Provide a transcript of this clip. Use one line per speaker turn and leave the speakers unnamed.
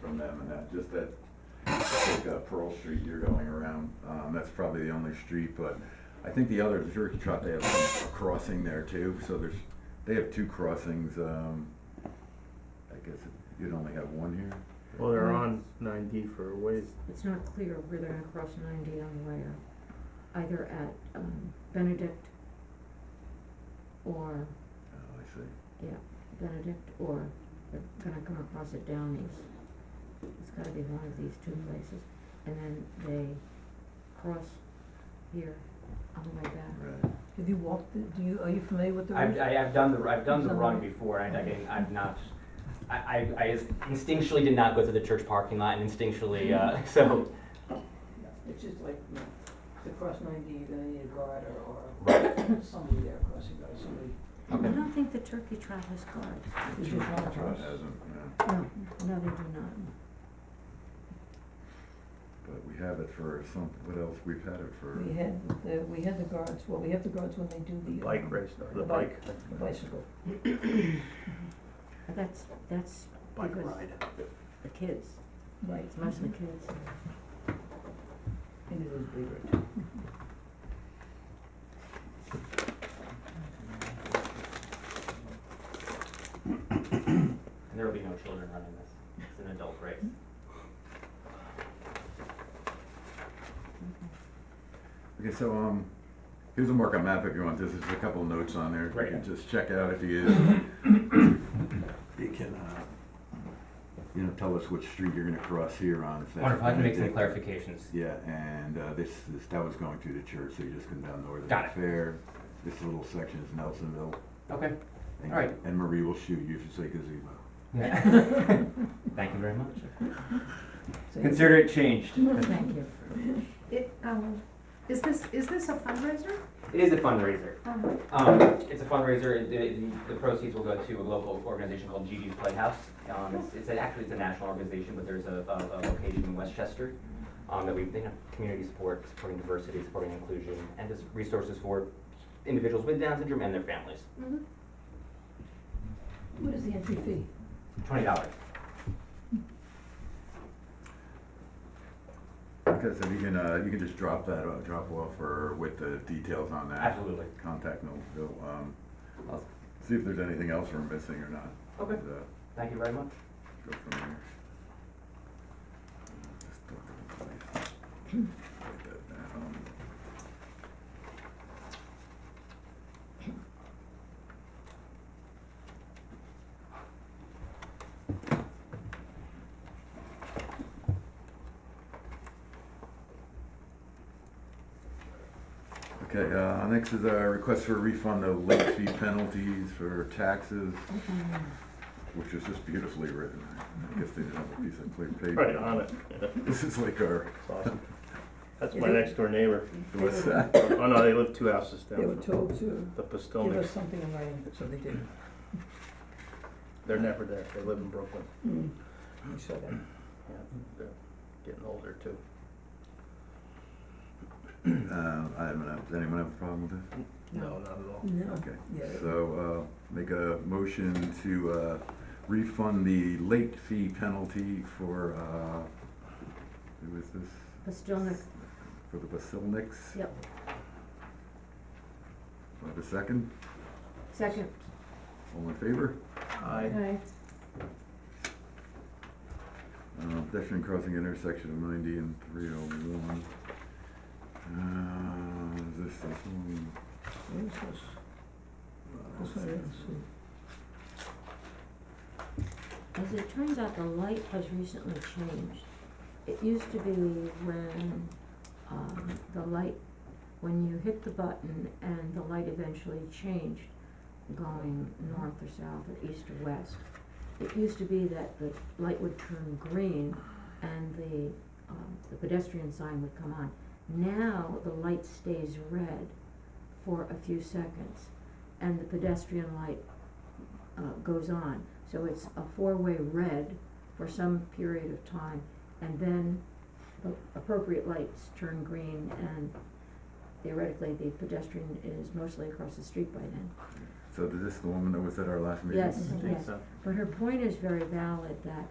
from them and that, just that, like uh, Pearl Street you're going around, um, that's probably the only street, but I think the other, the Turkey Trot, they have a crossing there too, so there's, they have two crossings, um, I guess you'd only have one here.
Well,
Hmm.
they're on nine D for a ways.
It's not clear where they're gonna cross ninety on where, either at, um, Benedict or,
Oh, I see.
yeah, Benedict or they're gonna come across at Downey's. It's gotta be one of these two places, and then they cross here on the way back.
Right.
Have you walked, it? do you, are you familiar with the route?
I've, I have done the, I've done the run
Somewhere.
before, and I, I- I've not, I, I, I just instinctually did not go through the church parking lot, and instinctually, uh, so,
It's just like, you know, to cross ninety, you're gonna need a guard or,
right,
or somebody there crossing guard, somebody.
I
okay.
don't think the turkey trot has guards.
It's
Turkey
just not a
Trot
cross.
hasn't, no,
No, no, they do not.
but we have it for some, what else, we've had it for.
We had the, we had the guards, well, we have the guards when they do the.
Bike
um,
race, the
The
bike.
bike. The bicycle.
But that's, that's because the kids,
Right.
it's mostly kids.
And it was bigger too.
And there will be no children running this, it's an adult race.
Okay, so, um, here's a markup map if you want, this is a couple of notes on there, you
Right.
can just check it out if you, you can, uh, you know, tell us which street you're gonna cross here on, if that's.
Wonder if I can make some
Benedict.
clarifications.
Yeah, and, uh, this, this, that was going through the church, so you just come down north of
Got
the
it.
fair, this little section is Nelsonville.
Okay.
and-
All right.
And Marie will shoot you if you say gazebo.
Thank you very much.
So you-
Consider it changed.
Thank you.
It, um, is this, is this a fundraiser?
It is a fundraiser.
Um,
Um, it's a fundraiser, It- it- the proceeds will go to a local organization called Gigi's Playhouse. Um, it's, it's an- actually, it's a national organization, but there's a, a, a location in Westchester, um, that we, you know, community support, supporting diversity, supporting inclusion, and just resources for individuals with Down syndrome and their families.
mhm.
What is the entry fee?
Twenty dollars.
Okay, so you can, uh, you can just drop that, uh, drop off or with the details on that.
Absolutely.
Contact Nelsonville, um, I'll see if there's anything else we're missing or not.
Okay.
And, uh,
Thank you very much.
Go from there. Uh, just go to the place. Write that down. Okay, uh, next is a request for a refund of late fee penalties for taxes, which is just beautifully written. I guess they didn't have a piece of clear paper.
Right on it. Yeah,
This is like our,
It's awesome. That's my next door neighbor.
what's that?
Oh no, they live two houses
They were
down from
told to
the
give
Postelniks.
us something in writing, so they didn't.
They're never there. They live in Brooklyn.
Mm. We saw that.
Yeah, they're getting older too.
Um, I don't know, does anyone have a problem with this?
No, not at all.
No,
Okay,
yeah.
so, uh, make a motion to, uh, refund the late fee penalty for, uh, who is this?
Postelnik,
For the Basilniks?
Yep.
Do I have a second?
second.
All in favor?
I,
Aye.
Uh, pedestrian crossing intersection of ninety and three oh one. Uh, is this the one?
What is this? This one, hmm. I
As
didn't see.
it turns out, the light has recently changed. It used to be when, um, the light, when you hit the button and the light eventually changed going north or south or east or west. It used to be that the light would turn green and the, um, the pedestrian sign would come on. Now, the light stays red for a few seconds and the pedestrian light, uh, goes on. So it's a four-way red for some period of time, and then the appropriate lights turn green, and theoretically, the pedestrian is mostly across the street by then.
So is this the woman that was at our last meeting?
Yes,
think
yes.
so.
But her point is very valid, that